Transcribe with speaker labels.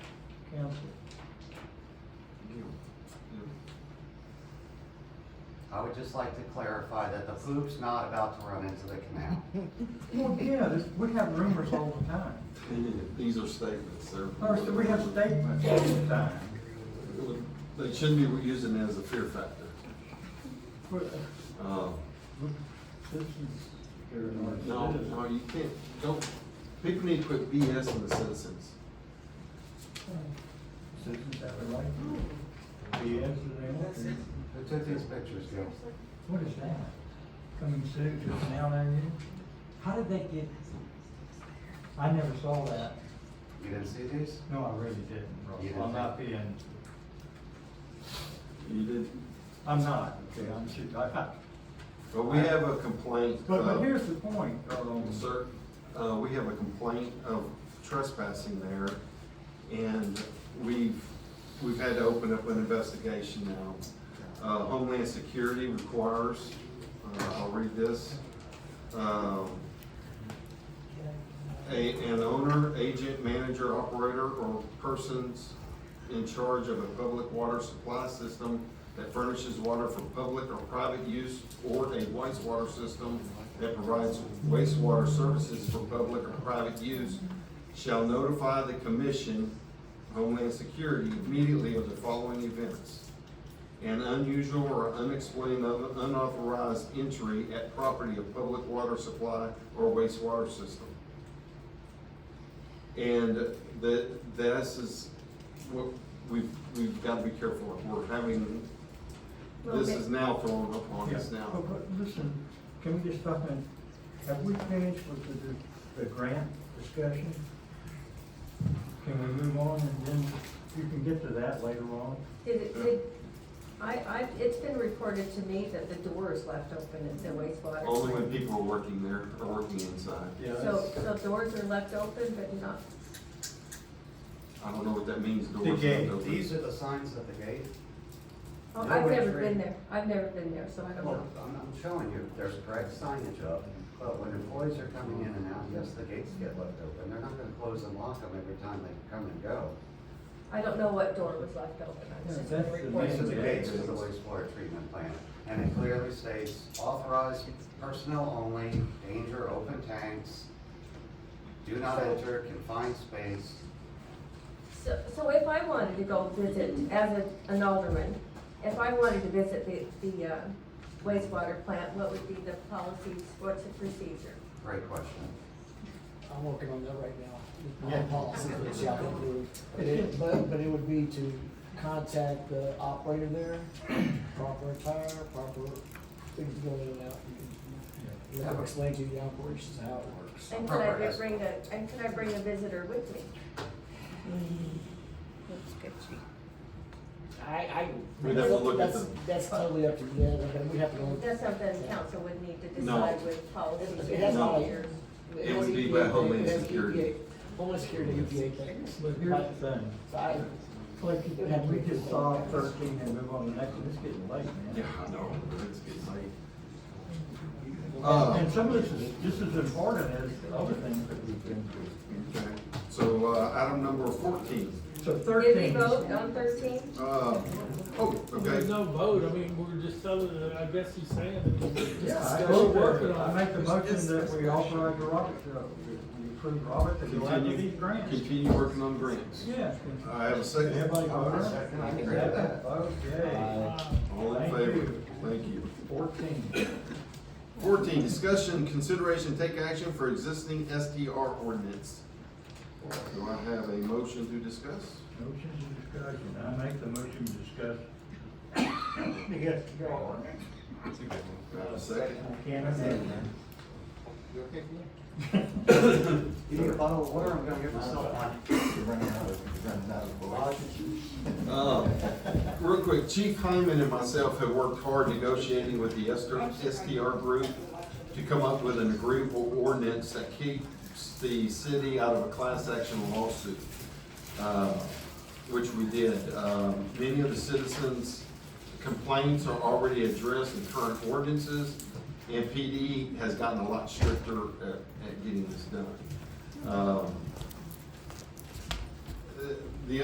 Speaker 1: council.
Speaker 2: I would just like to clarify that the poop's not about to run into the canal.
Speaker 1: Well, yeah, this- we have rumors all the time.
Speaker 3: These are statements, they're.
Speaker 1: First, we have statements all the time.
Speaker 3: They shouldn't be using it as a fear factor.
Speaker 1: But,
Speaker 3: Uh,
Speaker 1: but This is.
Speaker 3: No, no, you can't, don't, people need to quit BSing the citizens.
Speaker 1: Citizens have a right to be as they want to.
Speaker 2: Who took these pictures, Gil?
Speaker 1: What is that? Coming soon to us now, aren't you? How did they get? I never saw that.
Speaker 2: You didn't see these?
Speaker 1: No, I really didn't,
Speaker 2: You
Speaker 1: Russell.
Speaker 2: didn't
Speaker 1: I'm not being,
Speaker 3: You did,
Speaker 1: I'm not, okay, I'm shoot, I, I,
Speaker 3: but we have a complaint.
Speaker 1: but,
Speaker 3: uh,
Speaker 1: but here's the point, um,
Speaker 3: Sir, uh, we have a complaint of trespassing there, and we've, we've had to open up an investigation now. Uh, Homeland Security requires, uh, I'll read this, um, a, an owner, agent, manager, operator, or persons in charge of a public water supply system that furnishes water for public or private use, or a wastewater system that provides wastewater services for public or private use, shall notify the Commission Homeland Security immediately of the following events. An unusual or unexplained un- unauthorized entry at property of public water supply or wastewater system. And that, this is what, we've, we've got to be careful. We're having, this is now thrown upon
Speaker 1: yeah,
Speaker 3: us now.
Speaker 1: but, but listen, can we just stop and, have we finished with the, the grant discussion? Can we move on and then you can get to that later on?
Speaker 4: Did it, did, I, I, it's been reported to me that the door is left open at the wastewater.
Speaker 3: Only when people are working there, are working inside.
Speaker 4: So, so doors are left open, but not,
Speaker 3: I don't know what that means. doors
Speaker 5: The
Speaker 3: not
Speaker 5: gate,
Speaker 3: open.
Speaker 2: These are the signs at the gate.
Speaker 4: oh,
Speaker 2: Yeah.
Speaker 4: I've never been there, I've never been there, so I don't
Speaker 2: Well,
Speaker 4: know.
Speaker 2: I'm, I'm showing you, there's correct signage up, but when employees are coming in and out, yes, the gates get left open. They're not gonna close and lock them every time they come and go.
Speaker 4: I don't know what door was left open,
Speaker 1: Yeah,
Speaker 4: I've just
Speaker 1: that's
Speaker 4: been
Speaker 1: the
Speaker 2: These are
Speaker 4: reported.
Speaker 2: the gates to the wastewater treatment plant, and it clearly states authorized personnel only, danger, open tanks, do not enter, confined space.
Speaker 4: So, so if I wanted to go visit, as a- an alderman, if I wanted to visit the, the uh, wastewater plant, what would be the policies, what's the procedure?
Speaker 2: Great question.
Speaker 6: I'm working on that right now.
Speaker 1: Yeah.
Speaker 6: My policy that shall be approved. But it, but, but it would be to contact the operator there, proper attire, proper things going in and out. You can Let them explain to you the operations, and how it works.
Speaker 4: And could I
Speaker 2: Proper-
Speaker 4: bring a, and could I bring a visitor with me?
Speaker 6: I, I.
Speaker 3: We'd have to look at
Speaker 6: That's,
Speaker 3: them.
Speaker 6: that's totally up to you, and we have to go.
Speaker 4: That's something council would need to
Speaker 3: No.
Speaker 4: decide with policy
Speaker 6: It has all-
Speaker 4: procedures.
Speaker 3: It would
Speaker 6: has
Speaker 3: be
Speaker 6: EPA
Speaker 3: by Homeland
Speaker 6: it has
Speaker 3: Security.
Speaker 6: EPA Homeland Security, E EPA things.
Speaker 1: But here's the thing,
Speaker 6: So I,
Speaker 1: like, can we just solve thirteen and move on to the next one? It's getting late, man.
Speaker 3: Yeah, I know, it's getting late. Uh,
Speaker 1: And some of this is, this is important as other things that we've been through.
Speaker 3: okay, so, uh, item number fourteen,
Speaker 1: So
Speaker 4: Did we
Speaker 1: thirteen,
Speaker 4: vote on thirteen?
Speaker 3: uh, oh,
Speaker 7: There's
Speaker 3: okay,
Speaker 7: no vote, I mean, we're just telling, it. I guess he's saying that.
Speaker 1: yeah, I,
Speaker 7: We're working
Speaker 1: I
Speaker 7: on it.
Speaker 1: make the motion that we authorize Robert to, we approve Robert to go out to these grants.
Speaker 3: continue working on grants. Uh,
Speaker 1: Yeah.
Speaker 3: I have a second,
Speaker 1: Everybody
Speaker 2: I
Speaker 1: voted?
Speaker 2: second, I agree with
Speaker 1: Second
Speaker 2: that.
Speaker 1: vote, yay.
Speaker 7: Uh,
Speaker 3: all in
Speaker 1: Thank
Speaker 3: favor,
Speaker 1: you.
Speaker 3: thank you.
Speaker 1: Fourteen.
Speaker 3: Fourteen, discussion, consideration, take action for existing SDR ordinance. Do I have a motion to discuss?
Speaker 1: Motion to discussion, I make the motion to discuss. Yes, go on.
Speaker 3: Do I have a second?
Speaker 1: I can't say that.
Speaker 2: You need a bottle of water, I'm gonna give myself one.
Speaker 3: Uh, Real quick, Chief Hyman and myself have worked hard negotiating with the SDR STR group to come up with an agreeable ordinance that keeps the city out of a class action lawsuit, uh, which we did. Um, Many of the citizens' complaints are already addressed in current ordinances, E and PD has gotten a lot stricter at at getting this done. Um,